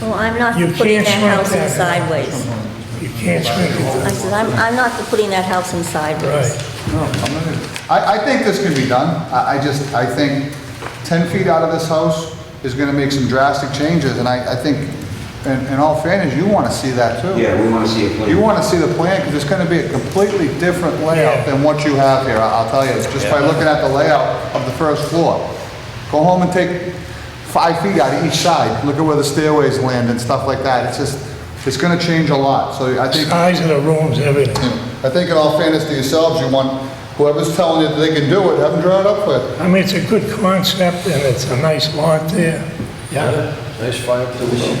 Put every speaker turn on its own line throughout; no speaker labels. Well, I'm not
You
for putting
can't
that
shrink
house in
that.
sideways.
You can't shrink
I
it.
said, I'm, I'm not for putting that house in sideways.
Right.
I, I think this can be done. I, I just, I think 10 feet out of this house is going to make some drastic changes, and I, I think, in, in all fairness, you want to see that too.
Yeah, we want to see a plan.
You want to see the plan, because it's going to be a completely different layout than what you have here, I- I'll tell you, just by looking at the layout of the first floor. Go home and take five feet out of each side, look at where the stairways land and stuff like that. It's just, it's going to change a lot, so I think
Size of the rooms, everything.
I think in all fairness to yourselves, you want, whoever's telling you that they can do it, have them draw it up for you.
I mean, it's a good concept and it's a nice lot there.
Yeah, nice five to one.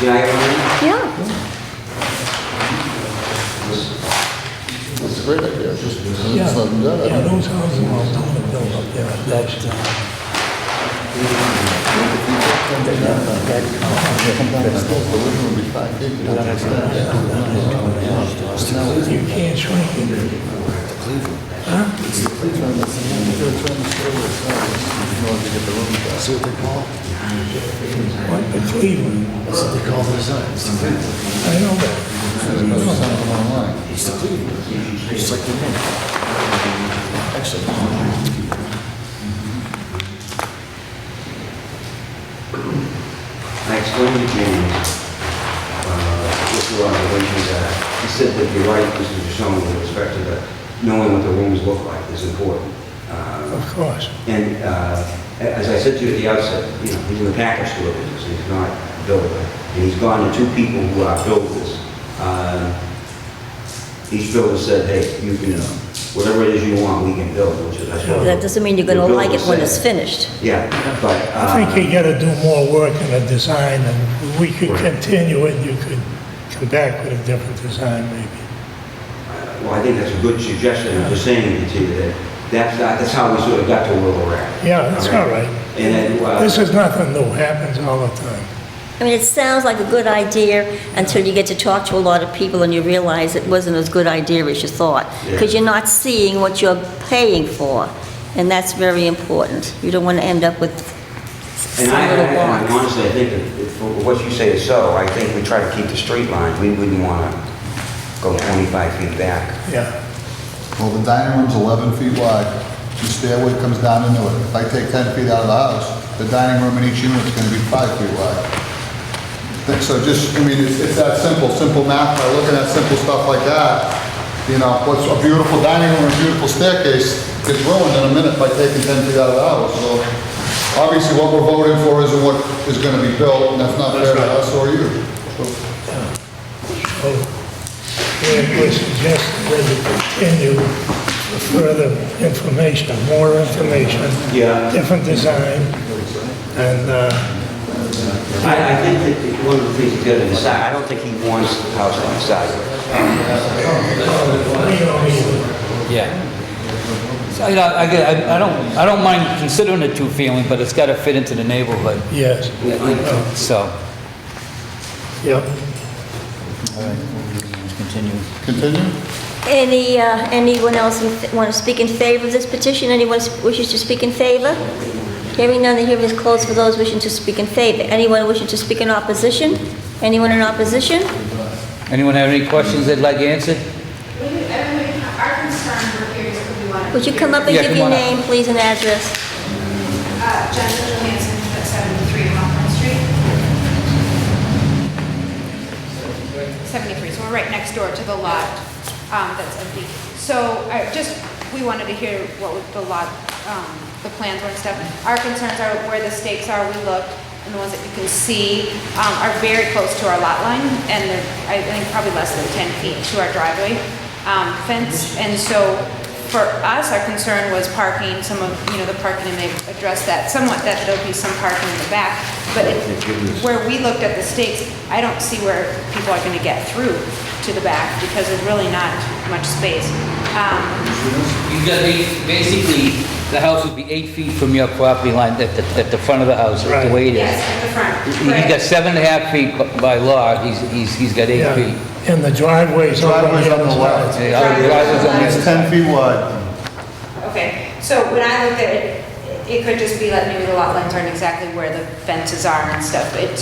GIR,
Yeah,
It's a great idea, it's just, it's not
Yeah,
done.
those houses are all to build up there, that's, uh,
The living room would be five feet.
you can't shrink it.
See what they call, it?
What, the Cleveland,
that's what they call the design. It's the Cleveland.
I know that.
It's the Cleveland. It's like the name. Actually.
I explained to Jamie, uh, what your observations are. He said that you're right, Mr. Duchamp, with respect to the, knowing what the rooms look like is important. Uh,
Of course.
And uh, as I said to you at the outset, you know, he's in the package store business, he's not a builder. And he's gone to two people who are builders. Uh, Each builder said, hey, you can, uh, whatever it is you want, we can build, which is, I suppose.
that doesn't mean you're gonna
what
like it when
builder
it's
said.
finished.
Yeah, but. uh,
I think you gotta do more work in the design and we could continue it, you could come back with a different design maybe.
Well, I think that's a good suggestion, I'm just saying to you that that's, that's how we sort of got to where we're at.
Yeah, that's all right.
And then, uh,
This is nothing new, happens all the time.
I mean, it sounds like a good idea until you get to talk to a lot of people and you realize it wasn't as good idea as you thought. Because you're not seeing what you're paying for, and that's very important. You don't wanna end up with some
And I,
little
I- and
box.
honestly, I think if- if what you say is so, I think we try to keep the straight line, we wouldn't want to go 25 feet back.
Yeah.
Well, the dining room's 11 feet wide, the stairway comes down into it. If I take 10 feet out of the house, the dining room in each unit's gonna be five feet wide. Think so, just, I mean, it's, it's that simple, simple math, by looking at simple stuff like that, you know, what's a beautiful dining room, a beautiful staircase gets ruined in a minute by taking 10 feet out of the house, so obviously what we're voting for isn't what is gonna be built, and that's not fair to us or you.
So, we we suggest that you continue for further information, more information.
Yeah.
Different design, and, uh,
I, I think that one of the things he's got to decide, I don't think he wants the house on the side.
we don't need,
Yeah. So, you know, I, get- I I don't, I don't mind considering it two-family, but it's gotta fit into the neighborhood,
yes,
so.
yep.
Continue.
Continue?
Any, uh, anyone else want to speak in favor of this petition? Anyone wishes to speak in favor? Hearing none, the hearing is closed for those wishing to speak in favor. Anyone wishing to speak in opposition? Anyone in opposition?
Anyone have any questions they'd like answered?
Everybody, our concern, we're curious if we want to.
Would you come up and
Yeah,
give
come
your
on up.
name, please, and address?
Uh, Jennifer Johansson, at 73 Hawthorne Street. 73, so we're right next door to the lot um, that's empty. So I just, we wanted to hear what would the lot, um, the plans were and stuff. Our concerns are where the stakes are, we looked, and the ones that you can see um, are very close to our lot line, and they're, I think, probably less than 10 feet to our driveway um, fence. And so for us, our concern was parking, some of, you know, the parking, and they addressed that somewhat, that there'll be some parking in the back, but it- where we looked at the stakes, I don't see where people are gonna get through to the back, because there's really not much space. Um,
You got, ba- basically, the house would be eight feet from your property line at the, at the front of the house, the
Right.
way it is.
Yes, at the front.
He's got
right.
seven and a half feet b- by law, he's, he's, he's got eight
Yeah.
feet.
And the driveway's on
Driveway's
the
on the
other
left.
side.
The other driveway's on the
It's 10 feet wide.
Okay, so when I looked at it, it could just be like maybe the lot lines aren't exactly where the fences are and stuff, but it's